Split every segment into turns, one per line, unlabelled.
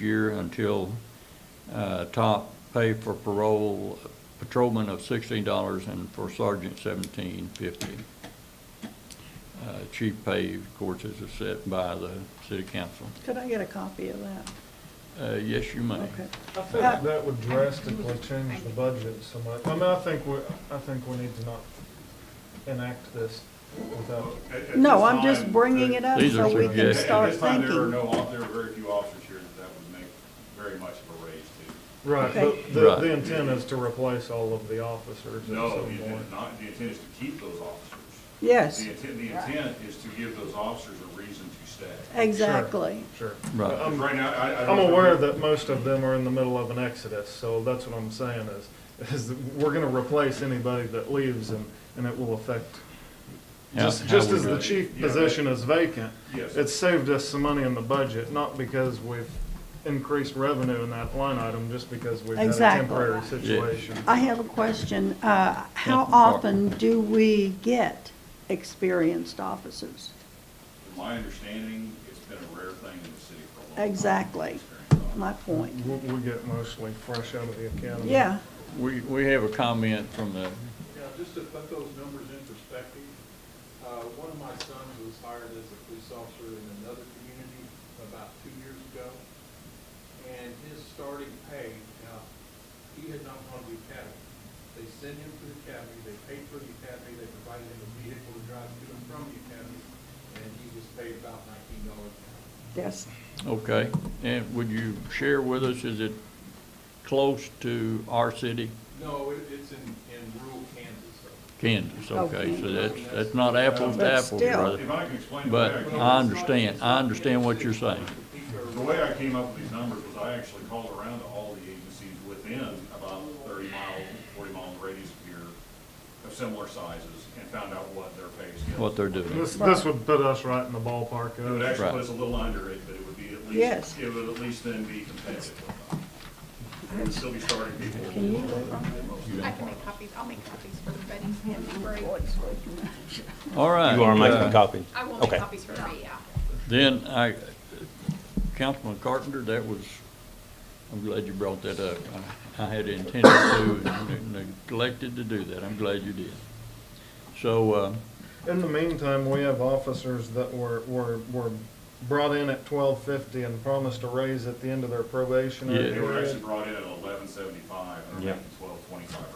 year until uh, top pay for parole patrolman of sixteen dollars and for sergeant seventeen fifty. Uh, Chief pay, of course, is set by the city council.
Could I get a copy of that?
Uh, Yes, you may.
Okay.
I think that would drastically change the budget so much. I mean, I think we, I think we need to not enact this without,
At- at
No,
this
I'm just
time,
bringing
there-
it up
These are
so we can
suggestions.
At
start
this time, there were
thinking.
no, off- there were very few officers here that that would make very much of a raise to.
right,
Okay.
but the,
Right.
the intent is to replace all of the officers at
No,
some
the intent is
point.
not, the intent is to keep those officers.
Yes,
The intent, the intent is to give those officers a reason to stay.
exactly.
Sure.
Right.
I'm-
Right now, I, I. don't
Um, I'm aware
remember-
that most of them are in the middle of an exodus, so that's what I'm saying is, is that we're gonna replace anybody that leaves and, and it will affect.
Yeah,
Just,
how
just
we
as
do
the
it.
chief
Yeah.
position is vacant,
Yes.
it's saved us some money in the budget, not because we've increased revenue in that line item, just because we've had a
Exactly.
temporary
Yeah.
situation.
I have a question. Uh, How
Yeah, sorry.
often do we get experienced officers?
From my understanding, it's been a rare thing in the city for a long time.
Exactly,
Experience.
my point.
We, we get mostly fresh out of the academy.
Yeah,
We, we have a comment from the,
Yeah, just to put those numbers in perspective, uh, one of my sons was hired as a police officer in another community about two years ago. And his starting pay, now, he had not gone to the academy. They sent him to the academy, they paid for the academy, they provided him a vehicle to drive to and from the academy, and he was paid about nineteen dollars an hour.
yes.
okay. And would you share with us, is it close to our city,
No, it, it's in, in rural Kansas, so.
Kansas? Okay, so
Okay.
that's, that's not apples to
Oh, But
apples,
still.
brother.
If I can explain. the way
But
I came-
I understand, I understand what you're saying.
The way I came up with these numbers was I actually called around to all the agencies within about thirty mile, forty mile radius of here of similar sizes and found out what their pay scale.
What they're doing.
This, this would put us right in the ballpark
It would
of,
actually
Right.
put us a little under it, but it would be at least.
Yes.
It would at least then be competitive. It would still be starting people.
Can you live on
I can make copies, I'll make copies for everybody.
All right.
You are
uh,
making copies?
I will make
Okay.
copies for everybody, yeah.
Then I, Councilman Carpenter, that was, I'm glad you brought that up. I I had intended to, and neglected to do that. I'm glad you did. So, uh,
in the meantime, we have officers that were, were, were brought in at twelve fifty and promised a raise at the end of their probationary
Yeah.
They were
period.
actually brought in at eleven seventy-five, and they're
Yeah.
making twelve twenty-five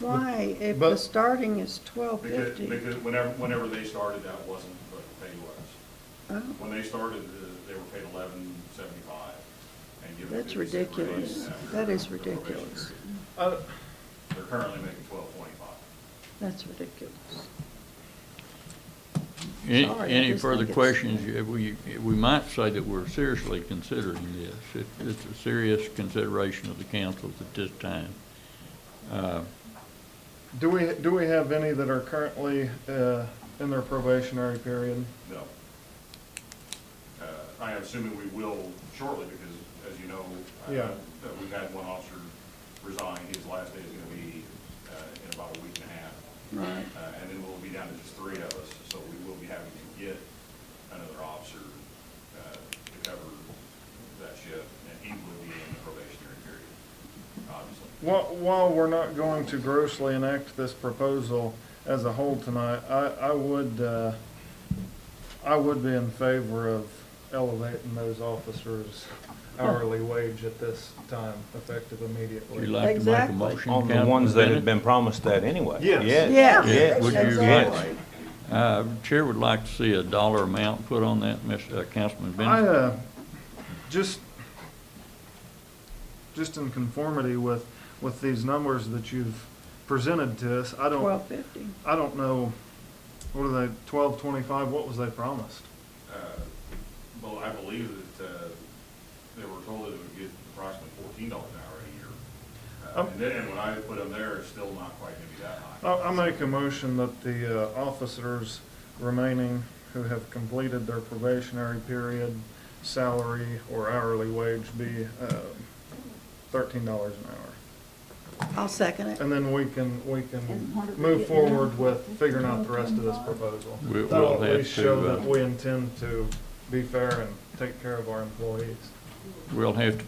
right
Why, if the
But-
starting is twelve
now. Because,
fifty?
because whenever, whenever they started, that wasn't what the pay was.
Oh,
When they started, uh, they were paid eleven seventy-five and given a
That's
fifty cent raise
ridiculous.
after
That is
their probation
ridiculous.
period.
I-
They're currently making twelve twenty-five.
That's ridiculous.
any,
Sorry, I
any
just
further
think it's-
questions? Yeah, We, we might say that we're seriously considering this. It- It's a serious consideration of the council at this time. Uh,
Do we, do we have any that are currently, uh, in their probationary period?
No. Uh, I am assuming we will shortly, because as you know, uh,
Yeah.
that we've had one officer resign. His last day is gonna be uh, in about a week and a half.
Right.
Uh, And then we'll be down to just three of us, so we will be having to get another officer uh, to cover that shift, and he will be in the probationary period, obviously.
While, while we're not going to grossly enact this proposal as a whole tonight, I, I would, uh, I would be in favor of elevating those officers hourly wage at this time, effective
Would you
immediately.
like to make a
Exactly.
motion?
On the
Councilman
ones that
Bennett?
had been promised that anyway.
Yes.
Yeah.
Yes.
Would you-
Exactly.
Uh, Chair would like to see a dollar amount put on that, Mr. Councilman
I,
Bennett.
uh, just, just in conformity with, with these numbers that you've presented to us, I don't.
Twelve fifty.
I don't know, what are they, twelve twenty-five, what was they promised?
Uh, Well, I believe that uh, they were told that it would get approximately fourteen dollars an hour a year.
Um, uh,
Uh, And then when I put them there, it's still not quite gonna be that high.
I, I make a motion that the uh, officers remaining who have completed their probationary period, salary or hourly wage be, uh, thirteen dollars an hour.
I'll second it.
And then we can, we can
And what are we
move
getting
forward
now?
with figuring out the rest of this proposal.
We- we'll
That'll at
have
least
to,
show
uh,
that we intend to be fair and take care of our employees.
we'll have to